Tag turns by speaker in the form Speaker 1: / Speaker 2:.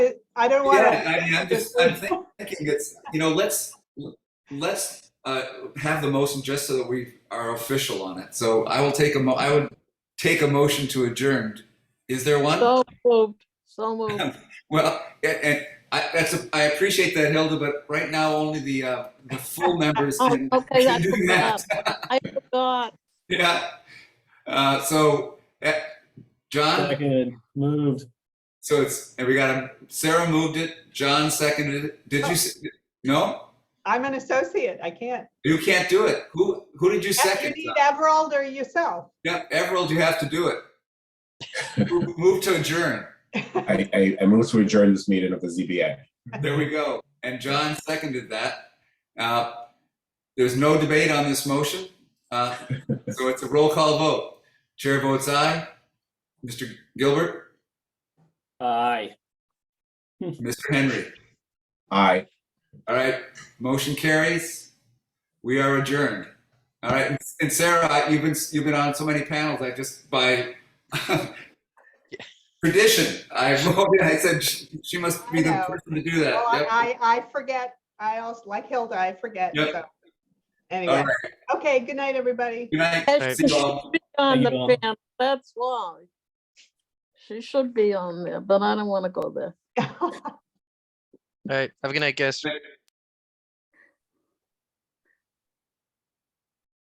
Speaker 1: I don't want to.
Speaker 2: Yeah, I mean, I'm just, I'm thinking it's, you know, let's, let's uh, have the motion just so that we are official on it. So I will take a mo, I would take a motion to adjourn. Is there one?
Speaker 3: So moved, so moved.
Speaker 2: Well, and, and I, that's, a- I appreciate that Hilda, but right now only the, uh, the full members
Speaker 3: Oh,
Speaker 2: can
Speaker 3: okay,
Speaker 2: can
Speaker 3: that's
Speaker 2: do that.
Speaker 3: enough. I forgot.
Speaker 2: Yeah. Uh, so, uh, John,
Speaker 4: Second, moved.
Speaker 2: so it's, and we got, a- Sarah moved it, John seconded it. Did
Speaker 3: Oh.
Speaker 2: you, s- no?
Speaker 1: I'm an associate. I can't.
Speaker 2: You can't do it. Who who did you
Speaker 1: You
Speaker 2: second?
Speaker 1: need Everald or yourself.
Speaker 2: Yeah, Everald, you have to do it. Move move to adjourn.
Speaker 5: I, I, I move to adjourn this meeting of the ZBA.
Speaker 2: There we go. And John seconded that. Uh, There's no debate on this motion. Uh, So it's a roll call vote. Chair votes aye. Mr. Gilbert,
Speaker 4: Aye.
Speaker 2: Mr. Henry.
Speaker 5: Aye.
Speaker 2: All right, motion carries. We are adjourned. All right, and Sarah, I- you've been, you've been on so many panels, I just by tradition, I voted, I said she she must be the
Speaker 1: I know.
Speaker 2: person to do that.
Speaker 1: Well,
Speaker 2: Yep.
Speaker 1: I, I I forget. I also, like Hilda, I forget.
Speaker 2: Yep.
Speaker 1: so. Anyway, okay, good night, everybody.
Speaker 2: Good night.
Speaker 3: And She
Speaker 2: See you all.
Speaker 3: should be on
Speaker 4: Thank
Speaker 3: the
Speaker 4: you all.
Speaker 3: panel, that's why. She should be on there, but I don't want to go there.
Speaker 6: All right. Have a good night, guys.